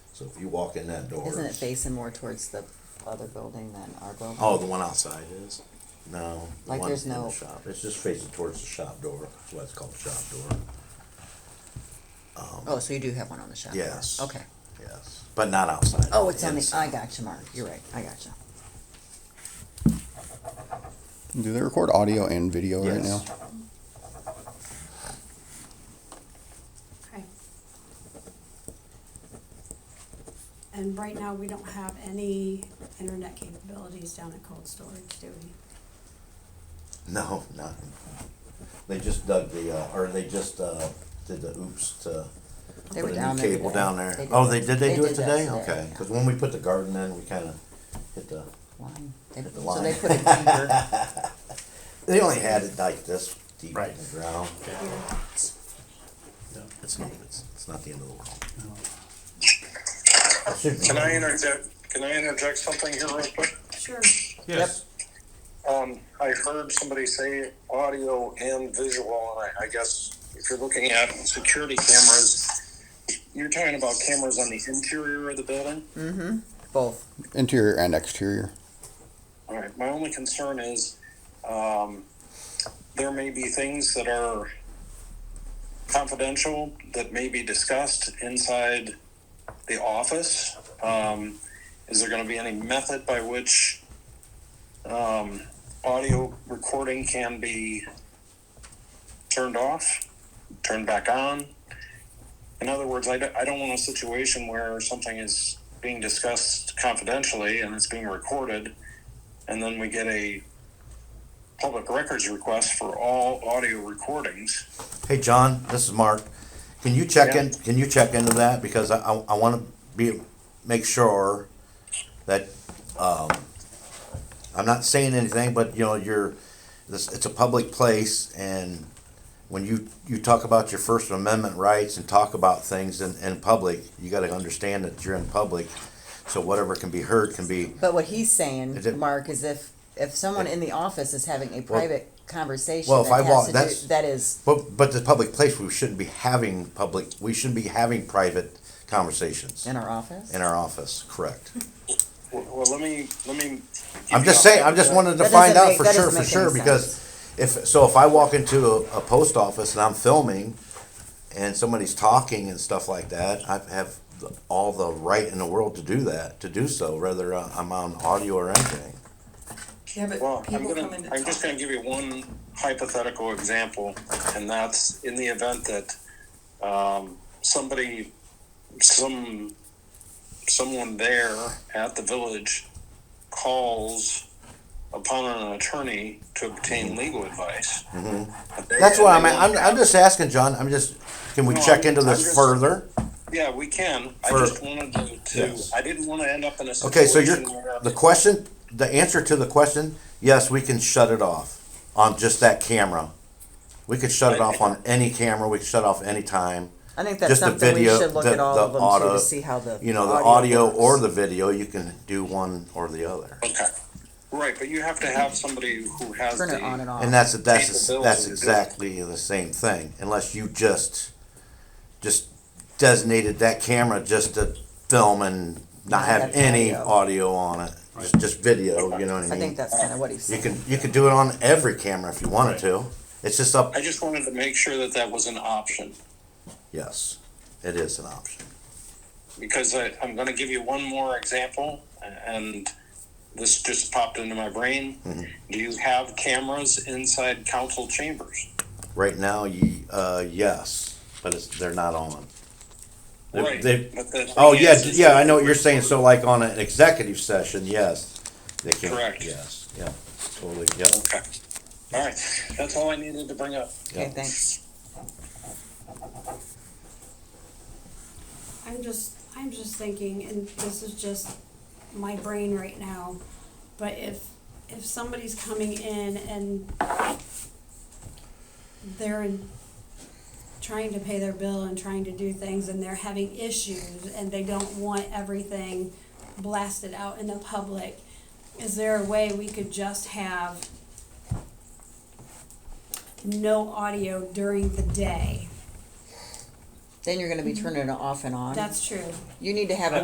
So if you walk in that door. Isn't it facing more towards the other building than our building? Oh, the one outside is. No. the Like one there's in the no- Shop, it's just facing towards the shop door, that's why it's called shop door, Um, Oh, so you do have one on the shop? floor. Yes. Okay. yes. but not outside. Oh, it's on the, inside. I got you, Mark. You're right. I got you. Do they record audio and video right now? Yes. Okay. And right now, we don't have any internet capabilities down at cold storage, do we? No, not, they just dug the, uh, or they just, uh, did the oops to They put were a down new there cable today. down there. They did Oh, that. they, did they do it that today? today, Okay, yeah. cause when we put the garden in, we kinda hit the, Line. They- The So they line. put a anchor, they only had it like this deep in Right. the ground. Here. No, it's not. It's, It's not the end of the world. It should be. Can I interject, can I interject something here real quick? Sure. yes. Um, I heard somebody say audio and visual, and I, I guess if you're looking at security cameras, you're talking about cameras on the interior of the building? Mm-hmm. both. Interior and exterior. All right, my only concern is, um, there may be things that are confidential that may be discussed inside the office. Um, is there gonna be any method by which, um, audio recording can be turned off, turned back on? In other words, I don't, I don't want a situation where something is being discussed confidentially and it's being recorded and then we get a public records request for all audio recordings. Hey, John, this is Mark. Can you check in, can you check into that? Because I, I, I wanna be, make sure that, um, I'm not saying anything, but you know, you're, this, it's a public place and when you, you talk about your First Amendment rights and talk about things in, in public, you gotta understand that you're in public. So whatever can be heard can be, But what Is he's it- saying, Mark, is if, if someone in the office is having a private conversation Well, if I that walk- has to that's- do, that is, but, but the public place, we shouldn't be having public, we shouldn't be having private conversations. in our office? In our office, correct. Well, well, let me, let me. I'm just saying, I'm just wanted to That find doesn't out make- for that sure, doesn't for make sure, any because if, so if I walk into a, a post office and I'm filming and somebody's talking and stuff like that, I have the- all the right in the world to do that, to do so, whether uh, I'm on audio or anything. Yeah, Well, but I'm people come gonna, in to I'm just talk. gonna give you one hypothetical example, and that's in the event that, um, somebody, some, someone there at the village calls upon an attorney to obtain legal advice. Mm-hmm. That's what I'm, I'm, I'm just asking, John, I'm just, can we No, check I'm- into I'm this just- further? Yeah, we can. I For- just wanted to, to, Yes. I didn't wanna end up in a situation. Okay, so you're, where- the question, the answer to the question, yes, we can shut it off on just that camera. We could shut it off on any camera, we could shut off anytime. I think that's just the something we video- should look the- at all the of them too, auto- to see how the. you know, the audio or works. the video, you can do one or the other. Okay, right, but you have to have somebody who has Turn it on the, and off. And that's, that's, Capability that's to do it. exactly the same thing, unless you just, just designated that camera just to film and not have any audio on it, just, just video, you know what I I think mean? that's kinda what he's You saying. can, you could do it on every camera if you wanted to, it's just up, I just wanted to make sure that that was an option. yes, it is an option. because I, I'm going to give you one more example, and this just popped into my brain. Mm-hmm. Do you have cameras inside council chambers? Right now, you, uh, yes, but it's, they're not on. They- they- but the Oh, thing yeah, is- is- yeah, I know what you're saying, so like on an executive session, yes, they can. Correct. Yes, yeah, totally, yeah. Okay. All right. That's all I needed to bring up. Okay, thanks. I'm just, I'm just thinking, and this is just my brain right now, but if, if somebody's coming in and they're in- trying to pay their bill and trying to do things and they're having issues and they don't want everything blasted out in the public, is there a way we could just have no audio during the day? Then you're gonna be turning it off and on. That's true. You need to have a